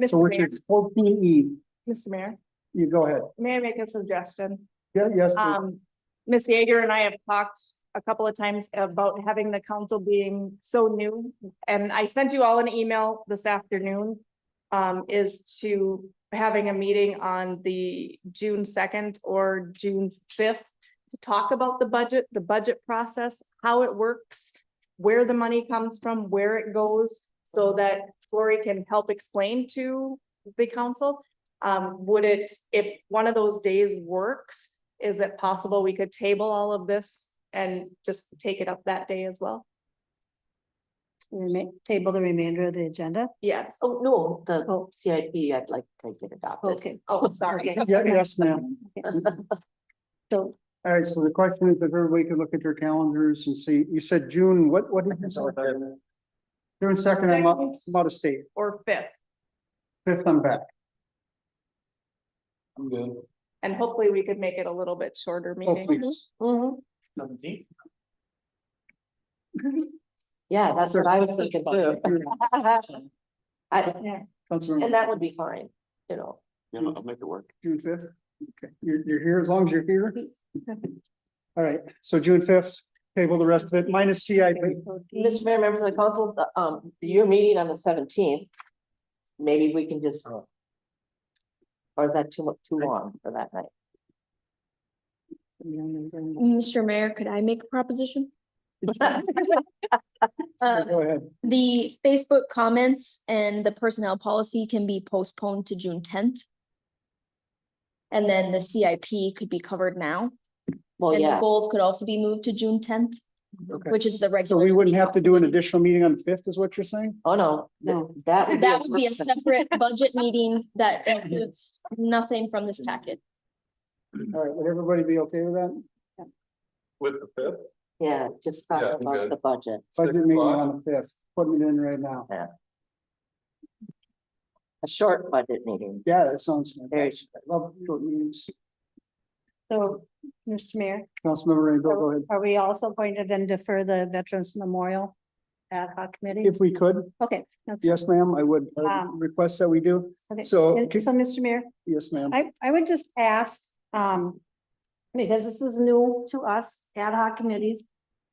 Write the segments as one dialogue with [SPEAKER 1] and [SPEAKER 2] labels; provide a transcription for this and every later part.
[SPEAKER 1] Mr.
[SPEAKER 2] So which
[SPEAKER 1] Mayor,
[SPEAKER 2] is fourteen E,
[SPEAKER 1] Mr. Mayor,
[SPEAKER 2] you go ahead.
[SPEAKER 1] may I make a suggestion?
[SPEAKER 2] Yeah, yes, please.
[SPEAKER 1] Um, Ms. Yeager and I have talked a couple of times about having the council being so new. And I sent you all an email this afternoon. Um, is to having a meeting on the June second or June fifth. To talk about the budget, the budget process, how it works, where the money comes from, where it goes. So that Lori can help explain to the council. Um, would it, if one of those days works, is it possible we could table all of this and just take it up that day as well?
[SPEAKER 3] Rema- table the remainder of the agenda.
[SPEAKER 1] Yes. Oh,
[SPEAKER 4] Oh, no, the
[SPEAKER 3] Oh.
[SPEAKER 4] CIP, I'd like to get adopted.
[SPEAKER 3] Okay.
[SPEAKER 1] oh, sorry.
[SPEAKER 2] Yeah, yes, ma'am.
[SPEAKER 3] So
[SPEAKER 2] All right, so the question is if everybody could look at their calendars and see, you said June, what, what did you say? June second, I'm out, I'm out of state,
[SPEAKER 1] Or fifth,
[SPEAKER 2] fifth, I'm back.
[SPEAKER 5] I'm good.
[SPEAKER 1] and hopefully we could make it a little bit shorter
[SPEAKER 2] Oh,
[SPEAKER 1] meeting.
[SPEAKER 2] please.
[SPEAKER 4] Mhm.
[SPEAKER 5] Seventeenth.
[SPEAKER 3] Mm-hmm. Oh,
[SPEAKER 4] Yeah, that's what I was thinking too. I, and
[SPEAKER 2] Councilmember,
[SPEAKER 4] that would be fine, you know,
[SPEAKER 5] Yeah, I'll make it work.
[SPEAKER 2] June fifth? Okay, you're, you're here as long as you're here. All right, so June fifth, table the rest of it, minus CIP.
[SPEAKER 4] Mr. Mayor, members of the council, the, um, your meeting on the seventeenth. Maybe we can just. Or is that too much, too long for that night?
[SPEAKER 6] Mr. Mayor, could I make a proposition?
[SPEAKER 2] Yeah,
[SPEAKER 6] Uh,
[SPEAKER 2] Go ahead.
[SPEAKER 6] The Facebook comments and the personnel policy can be postponed to June tenth. And then the CIP could be covered now,
[SPEAKER 4] Well,
[SPEAKER 6] and the
[SPEAKER 4] yeah,
[SPEAKER 6] goals could also be moved to June tenth,
[SPEAKER 2] Oh, Okay.
[SPEAKER 6] which is the
[SPEAKER 2] So
[SPEAKER 6] regular.
[SPEAKER 2] we wouldn't
[SPEAKER 6] city
[SPEAKER 2] have to do an
[SPEAKER 6] council meeting.
[SPEAKER 2] additional meeting on the fifth, is what you're saying?
[SPEAKER 4] oh, no,
[SPEAKER 3] No.
[SPEAKER 4] th- that. would
[SPEAKER 6] That would be a
[SPEAKER 4] first-
[SPEAKER 6] separate budget meeting that includes nothing from this packet.
[SPEAKER 2] All right, would everybody be okay with that?
[SPEAKER 5] With the fifth?
[SPEAKER 4] Yeah, just
[SPEAKER 5] Yeah,
[SPEAKER 4] talk
[SPEAKER 5] I'm
[SPEAKER 4] about
[SPEAKER 5] good.
[SPEAKER 4] the budget.
[SPEAKER 5] Six
[SPEAKER 2] Budget meeting
[SPEAKER 5] o'clock.
[SPEAKER 2] on the fifth, putting it in right now.
[SPEAKER 4] A short budget meeting.
[SPEAKER 2] Yeah, that sounds
[SPEAKER 4] Very
[SPEAKER 2] fantastic. I love short meetings.
[SPEAKER 3] So, Mr. Mayor,
[SPEAKER 2] Councilmember Rainbow, go ahead.
[SPEAKER 3] are we also going to then defer the Veterans Memorial ad hoc committee?
[SPEAKER 2] If we could,
[SPEAKER 3] Okay. that's-
[SPEAKER 2] yes, ma'am, I would I would
[SPEAKER 3] Um,
[SPEAKER 2] request that we do.
[SPEAKER 3] okay.
[SPEAKER 2] so-
[SPEAKER 3] And So, Mr. Mayor,
[SPEAKER 2] Yes, ma'am.
[SPEAKER 3] I, Um, I would just ask, um, because this is new to us, ad hoc committees,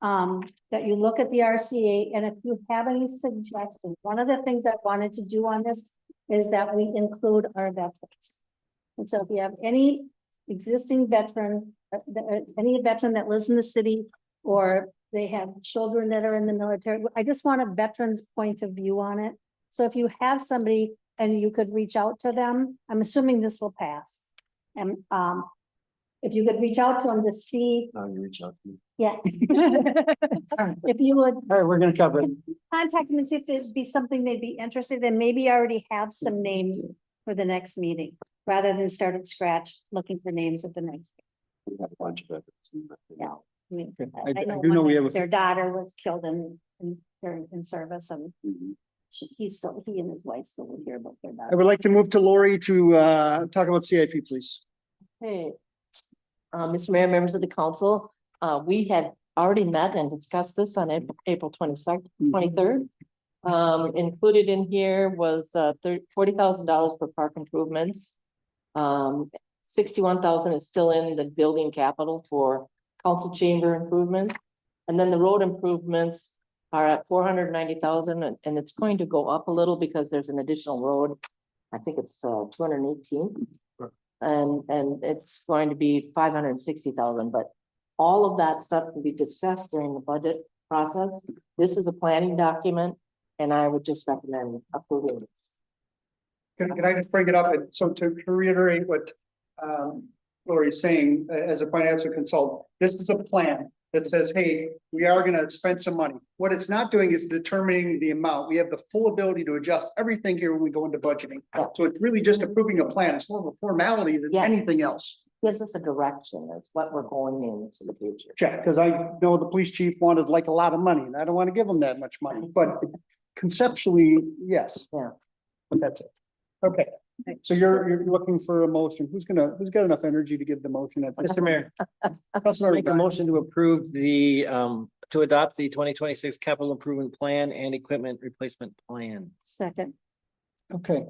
[SPEAKER 3] um, that you look at the RCA, and if you have any suggestions, one of the things I wanted to do on this is that we include our veterans. And so if you have any existing veteran, uh, uh, any veteran that lives in the city, or they have children that are in the military, I just want a veteran's point of view on it. So if you have somebody and you could reach out to them. I'm assuming this will pass. And um, if you could reach out to them to see,
[SPEAKER 5] No, you reach out to me.
[SPEAKER 3] yeah. If you would
[SPEAKER 2] All right, we're gonna cover it.
[SPEAKER 3] contact them and see if there'd be something they'd be interested in, maybe I already have some names for the next meeting, rather than start at scratch looking for names at the next.
[SPEAKER 5] We have a bunch of it.
[SPEAKER 3] Yeah. meeting.
[SPEAKER 2] I I do know
[SPEAKER 3] one
[SPEAKER 2] we
[SPEAKER 3] that
[SPEAKER 2] have, a
[SPEAKER 3] Their daughter was killed in in during in service and
[SPEAKER 5] Mm-hmm.
[SPEAKER 3] she, he's still, he and his wife still live here, but they're not.
[SPEAKER 2] I would like to move to Lori to uh talk about CIP, please.
[SPEAKER 4] Hey, uh, Mr. Mayor, members of the council, uh, we had already met and discussed this on Ap- April twenty-second, twenty-third. Um, included in here was, uh, thirty, forty thousand dollars for park improvements. Um, sixty-one thousand is still in the building capital for council chamber improvement. And then the road improvements are at four hundred ninety thousand, and, and it's going to go up a little because there's an additional road. I think it's, uh, two hundred eighteen. And, and it's going to be five hundred and sixty thousand, but all of that stuff can be discussed during the budget process. This is a planning document, and I would just recommend approving this.
[SPEAKER 2] Can, can I just bring it up? And So to to reiterate what um Lori's saying, a- as a financial consultant, this is a plan that says, hey, we are gonna spend some money. What it's not doing is determining the amount. We have the full ability to adjust everything here when we go into budgeting.
[SPEAKER 4] Yeah.
[SPEAKER 2] So it's really just approving a plan. It's more of a formality than
[SPEAKER 4] Yeah.
[SPEAKER 2] anything else.
[SPEAKER 4] Gives us a direction, that's what we're going into the future.
[SPEAKER 2] check, because I know the police chief wanted like a lot of money, and I don't want to give him that much money, but conceptually, yes.
[SPEAKER 4] Yeah.
[SPEAKER 2] But that's it. Okay, so you're, you're looking for a motion. Who's gonna, who's got enough energy to give the motion? at this Oh,
[SPEAKER 7] Mr. Mayor, make a
[SPEAKER 2] Councilmember
[SPEAKER 7] motion to approve the, um, to adopt the twenty twenty-six capital improvement plan and equipment replacement plan.
[SPEAKER 3] Second.
[SPEAKER 2] Okay,